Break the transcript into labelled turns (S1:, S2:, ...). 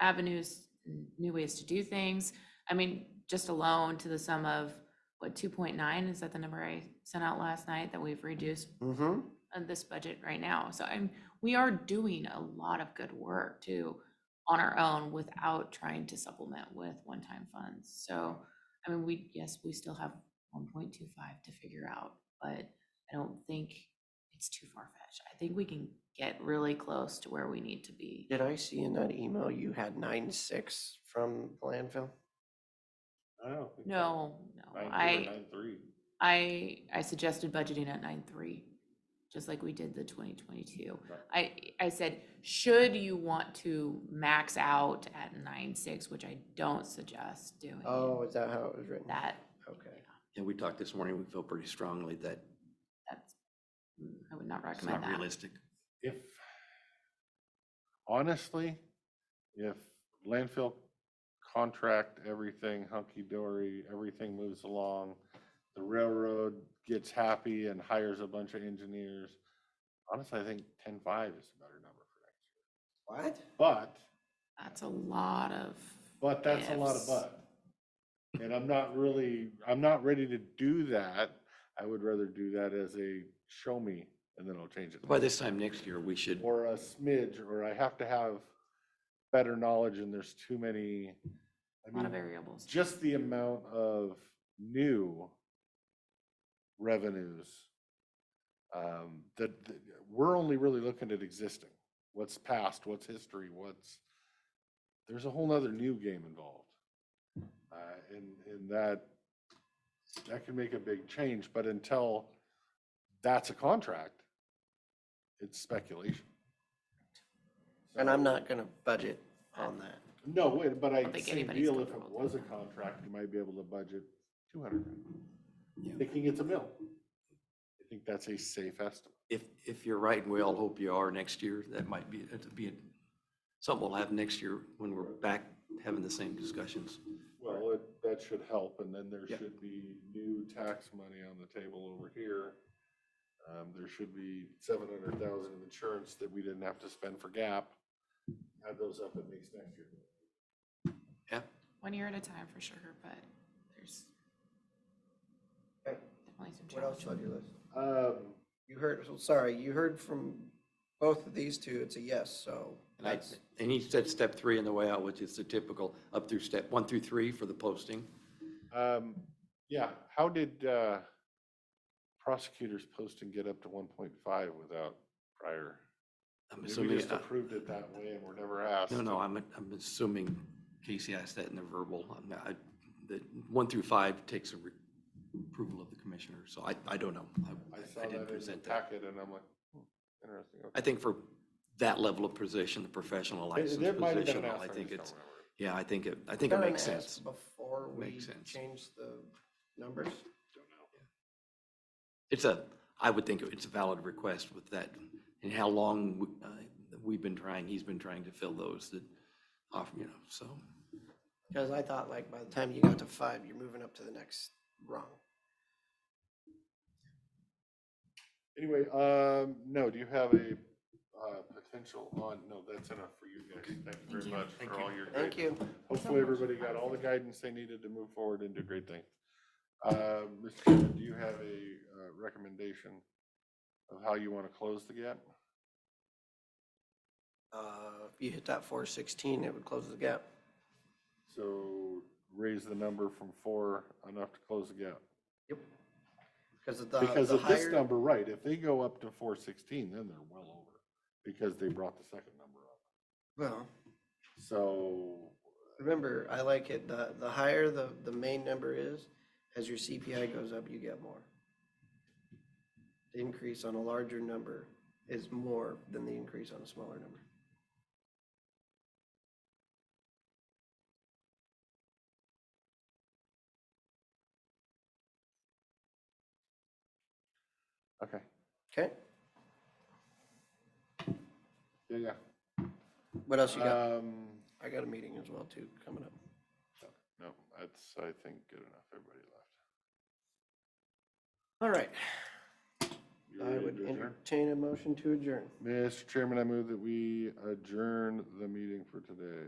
S1: avenues, n- new ways to do things. I mean, just alone to the sum of, what, two point nine, is that the number I sent out last night that we've reduced
S2: Mm-hmm.
S1: on this budget right now? So I'm, we are doing a lot of good work too on our own without trying to supplement with one-time funds. So, I mean, we, yes, we still have one point two five to figure out, but I don't think it's too far-fetched. I think we can get really close to where we need to be.
S2: Did I see in that email you had nine six from landfill?
S3: I don't think that-
S1: No, no,
S3: Nine two or
S1: I,
S3: nine three.
S1: I, I suggested budgeting at nine three, just like we did the twenty twenty-two.
S3: Right.
S1: I, I said, should you want to max out at nine six, which I don't suggest doing.
S2: Oh, is that how it was written?
S1: That,
S2: Okay.
S4: And we talked this morning, we feel pretty strongly that
S1: that's, mm, I would not
S4: it's not
S1: recommend that.
S4: realistic.
S3: If, honestly, if landfill contract, everything hunky-dory, everything moves along, the railroad gets happy and hires a bunch of engineers, honestly, I think ten-five is a better number for next year.
S2: What?
S3: But,
S1: That's a lot of,
S3: but that's a lot of
S1: Ifs.
S3: but. And I'm not really, I'm not ready to do that. I would rather do that as a show me, and then I'll change it.
S4: By
S3: later.
S4: this time next year, we should,
S3: or a smidge, or I have to have better knowledge and there's too many. I
S1: a lot of
S3: mean,
S1: variables.
S3: Just the amount of new revenues. Um, that, that, we're only really looking at existing, what's past, what's history, what's, there's a whole nother new game involved. Uh, and, and that, that can make a big change, but until that's a contract, it's speculation.
S2: And
S3: So-
S2: I'm not gonna budget on that.
S3: No, wait, but I,
S1: don't think
S3: same
S1: anybody's
S3: deal, if it
S1: comfortable
S3: was a
S1: doing that.
S3: contract, you might be able to budget two hundred,
S4: Yeah.
S3: thinking it's a mill. I think that's a safe estimate.
S4: if, if you're right, and we all hope you are next year, that might be, that'd be something we'll have next year when we're back having the same discussions.
S3: Well, it, that should help, and then there
S4: Yeah.
S3: should be new tax money on the table over here. Um, there should be seven hundred thousand of insurance that we didn't have to spend for gap. Add those up, it makes next year.
S4: Yeah,
S1: One year at a time for sure, but there's
S2: Okay,
S1: definitely some
S2: What else
S1: challenges.
S2: on your list?
S3: Um,
S2: You heard, so sorry, you heard from both of these two, it's a yes, so
S4: and I,
S2: that's,
S4: and he said step three in the way out, which is the typical up through step one through three for the posting.
S3: um, yeah, how did, uh, prosecutors posting get up to one point five without prior?
S4: I'm
S3: Maybe We
S4: assuming,
S3: just approved it that way and we're never asked.
S4: uh, no, no, I'm, I'm assuming Casey asked that in the verbal, I'm not, I, that one through five takes a re- approval of the commissioner, so I, I don't know.
S3: I saw
S4: didn't
S3: that in the
S4: present that.
S3: packet and I'm like, hmm, interesting.
S4: I think for that level of position, the professional license position, I think it's, yeah, I think it, I think it
S2: Kinda
S4: makes
S2: asked
S4: sense.
S2: Before we
S4: Makes sense.
S2: change the numbers.
S4: It's a, I would think it's a valid request with that, and how long we- uh, we've been trying, he's been trying to fill those that offer, you know, so.
S2: Because I thought like by the time you got to five, you're moving up to the next rung.
S3: Anyway, um, no, do you have a, uh, potential on, no, that's enough for you guys. Thank you very
S1: you.
S3: much
S4: Thank
S3: for
S4: you.
S3: all your.
S2: Thank
S3: guidance.
S2: you.
S3: Hopefully, everybody got all the guidance they needed to move forward and do great things. Uh, Mr. Chairman, do you have a, uh, recommendation of how you want to close the gap?
S2: Uh, If you hit that four sixteen, it would close the gap.
S3: So raise the number from four enough to close the gap.
S2: Because of the,
S3: Because
S2: the
S3: of this
S2: higher,
S3: number, right, if they go up to four sixteen, then they're well over, because they brought the second number up.
S2: well,
S3: So,
S2: remember, I like it, the, the higher the, the main number is, as your CPI goes up, you get more. The increase on a larger number is more than the increase on a smaller number.
S3: okay,
S2: Okay,
S3: yeah,
S2: what else you got?
S3: yeah. Um,
S2: I got a meeting as well too, coming up.
S3: no, that's, I think, good enough, everybody left.
S2: All right,
S3: You
S2: I
S3: ready
S2: would
S3: to adjourn?
S2: entertain a motion to adjourn.
S3: Mr. Chairman, I move that we adjourn the meeting for today.